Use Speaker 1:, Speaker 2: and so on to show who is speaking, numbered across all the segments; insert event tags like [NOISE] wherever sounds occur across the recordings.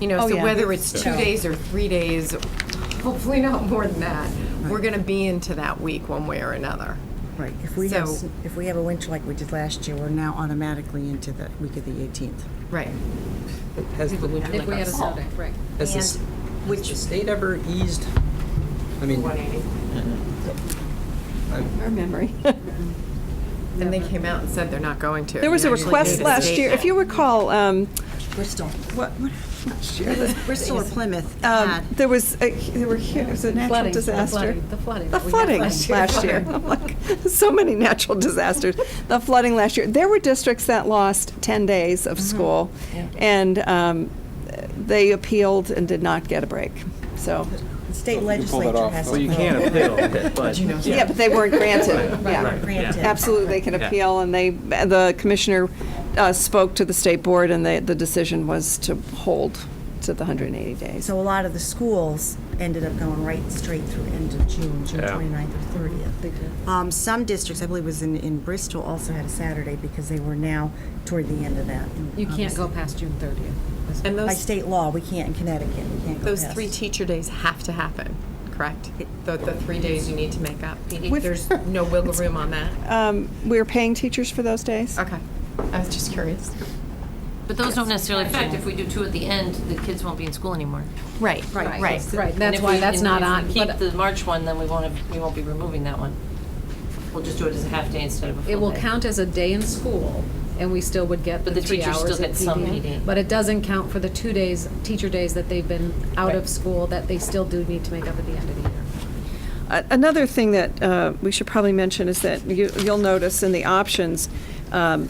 Speaker 1: You know,
Speaker 2: Oh,
Speaker 1: so
Speaker 2: yeah.
Speaker 1: whether it's two
Speaker 2: Yeah.
Speaker 1: days or three days, hopefully not more than that, we're going to be into that week one way or another.
Speaker 2: Right, if we have,
Speaker 1: So-
Speaker 2: s- if we have a winter like we did last year, we're now automatically into the week of the 18th.
Speaker 1: Right.
Speaker 3: Has the,
Speaker 4: If we had a snow day, right.
Speaker 3: has the, s- has the state ever eased, I mean,
Speaker 1: And they came out and said they're not going to.
Speaker 5: There was a
Speaker 1: Actually,
Speaker 5: request
Speaker 1: the
Speaker 5: last
Speaker 1: state-
Speaker 5: year, if you recall, um,
Speaker 2: Bristol. What, what, um, Bristol or Plymouth had,
Speaker 5: there was, a- there were, hu- it was a natural
Speaker 4: Ah. Flooding, the
Speaker 5: disaster.
Speaker 4: flooding, The flooding.
Speaker 5: The
Speaker 4: that we had
Speaker 5: flooding
Speaker 4: last
Speaker 5: last year.
Speaker 4: [LAUGHS]
Speaker 5: I'm like, [LAUGHS] So many natural disasters. The flooding last year. There were districts that lost 10 days
Speaker 4: Mm-hmm.
Speaker 5: of school, and um, they appealed and did not get a break. So,
Speaker 2: the state legislature has.
Speaker 6: Well, you can appeal, but,
Speaker 5: yeah, but they weren't granted. Yeah.
Speaker 2: Granted.
Speaker 5: Absolutely, they can appeal, and they, the commissioner uh, spoke to the state board, and they- the decision was to hold to the 180 days.
Speaker 2: So a lot of the schools ended up going right straight through end of June, June
Speaker 6: Yeah.
Speaker 2: 29th or 30th. Um, Some districts, I believe it was in, in Bristol, also had a Saturday because they were now toward the end of that. And
Speaker 4: You can't go
Speaker 2: obviously,
Speaker 4: past June 30th.
Speaker 1: And
Speaker 2: By
Speaker 1: those,
Speaker 2: state law, we can't in Connecticut, we can't go
Speaker 1: those
Speaker 2: past.
Speaker 1: three teacher days have to happen, correct? The, the three days you need to make up.
Speaker 5: With- [LAUGHS]
Speaker 1: There's no wiggle room on that.
Speaker 5: Um, We're paying teachers for those days?
Speaker 1: Okay. I was just curious.
Speaker 7: But those don't necessarily affect, if we do two at the end, the kids won't be in school anymore.
Speaker 1: Right, right, right.
Speaker 4: Right,
Speaker 7: And
Speaker 4: that's
Speaker 7: if
Speaker 4: why
Speaker 7: we-
Speaker 4: that's
Speaker 7: and
Speaker 4: not
Speaker 7: if we
Speaker 4: on.
Speaker 7: Keep
Speaker 4: but
Speaker 7: the March one, then we won't, have- we won't be removing that one. We'll just do it as a half day instead of a full day.
Speaker 4: It will count as a day in school, and we still would get
Speaker 7: But
Speaker 4: the
Speaker 7: the
Speaker 4: three
Speaker 7: teachers still
Speaker 4: hours of
Speaker 7: get some
Speaker 4: PD.
Speaker 7: PD.
Speaker 4: But it doesn't count for the two days, teacher days that they've been out of
Speaker 7: Right.
Speaker 4: school, that they still do need to make up at the end of the year.
Speaker 5: A- Another thing that uh, we should probably mention is that you- you'll notice in the options um,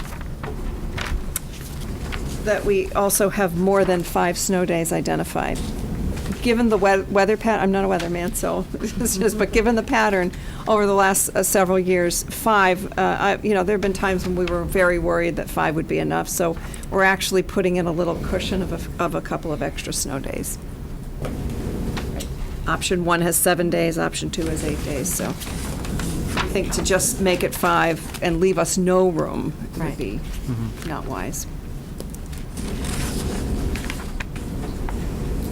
Speaker 5: that we also have more than five snow days identified. Given the wea- weather pat, I'm not a weatherman, so, [LAUGHS] it's just- but given the pattern over the last uh, several years, five, uh, I- you know, there have been times when we were very worried that five would be enough, so we're actually putting in a little cushion of a f- of a couple of extra snow days. Option one has seven days, option two has eight days, so I think to just make it five and leave us no room would be not wise.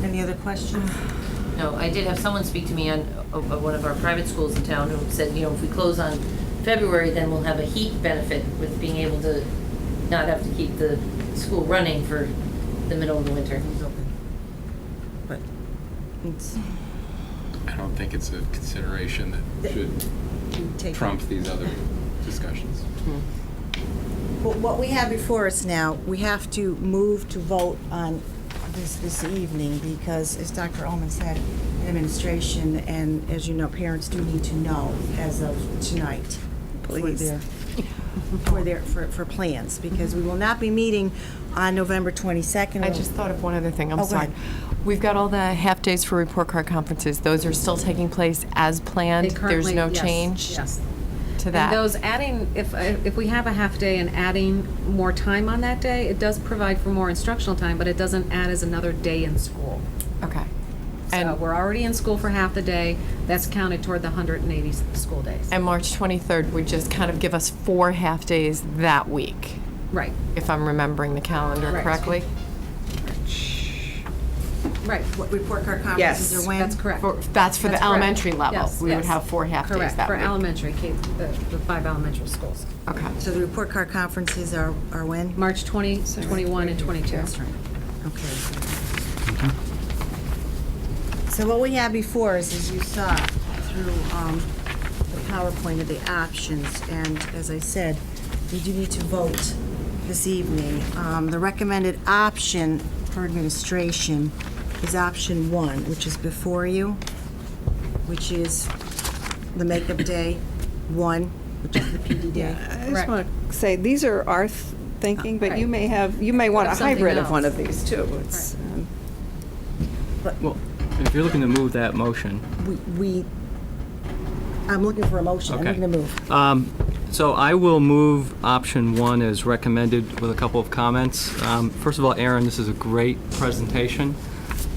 Speaker 2: Any other questions?
Speaker 7: No, I did have someone speak to me on, of of one of our private schools in town who said, you know, if we close on February, then we'll have a heat benefit with being able to not have to keep the school running for the middle of the winter.
Speaker 2: But it's,
Speaker 6: I don't think it's a consideration that should
Speaker 2: you take.
Speaker 6: trump these other discussions.
Speaker 2: Well, what we have before us now, we have to move to vote on this this evening because, as Dr. Ullman said, administration and, as you know, parents do need to know as of tonight. for
Speaker 5: Please.
Speaker 2: their- For their, for, for plans, because we will not be meeting on November 22nd.
Speaker 1: I just thought of one other thing,
Speaker 2: Oh,
Speaker 1: I'm
Speaker 2: go
Speaker 1: sorry.
Speaker 2: ahead.
Speaker 1: We've got all the half-days for report card conferences, those are still taking place as planned?
Speaker 4: They
Speaker 1: There's
Speaker 4: currently-
Speaker 1: no
Speaker 4: yes,
Speaker 1: change
Speaker 4: Yes.
Speaker 1: to
Speaker 4: And
Speaker 1: that?
Speaker 4: those adding, if, if we have a half day and adding more time on that day, it does provide for more instructional time, but it doesn't add as another day in school.
Speaker 1: Okay.
Speaker 4: So
Speaker 1: And,
Speaker 4: we're already in school for half the day, that's counted toward the 180 s- school days.
Speaker 1: and March 23rd would just kind of give us four half-days that week,
Speaker 4: Right,
Speaker 1: if I'm remembering the calendar
Speaker 4: Correct.
Speaker 1: correctly?
Speaker 4: right,
Speaker 2: What, report card
Speaker 5: Yes.
Speaker 2: conferences are when?
Speaker 4: that's correct.
Speaker 1: For- That's for
Speaker 4: That's
Speaker 1: the
Speaker 4: correct.
Speaker 1: elementary level?
Speaker 4: Yes,
Speaker 1: We would
Speaker 4: yes.
Speaker 1: have four half-days
Speaker 4: Correct,
Speaker 1: that
Speaker 4: for
Speaker 1: week?
Speaker 4: elementary, K- the the five elementary schools.
Speaker 1: Okay.
Speaker 2: So the report card conferences are, are when?
Speaker 4: March 20, 21, and 22.
Speaker 2: That's right. Okay. So what we have before us, as you saw through um, the PowerPoint of the options, and as I said, we do need to vote this evening. Um, The recommended option for administration is option one, which is before you, which is the makeup day, one, which is the PD day.
Speaker 5: I just want to say, these are our th- thinking, but you
Speaker 4: Uh, Right.
Speaker 5: may have, you may want a
Speaker 4: Have something
Speaker 5: hybrid of one
Speaker 4: else.
Speaker 5: of these too. It's, um,
Speaker 6: Well, if you're looking to move that motion,
Speaker 2: We- We, I'm looking for a motion. I'm
Speaker 6: Okay.
Speaker 2: looking to move.
Speaker 6: So I will move option one as recommended with a couple of comments. Um, First of all, Aaron, this is a great presentation.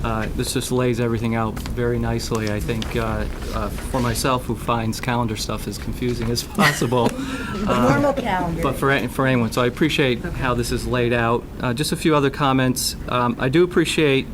Speaker 6: Uh, This just lays everything out very nicely, I think, uh, uh, for myself, who finds calendar stuff as confusing
Speaker 2: [LAUGHS]
Speaker 6: as [LAUGHS] possible. uh,
Speaker 2: Normal calendar.
Speaker 6: But for, an- for anyone, so I appreciate how this is laid out. Uh, Just a few other comments. Um, I do appreciate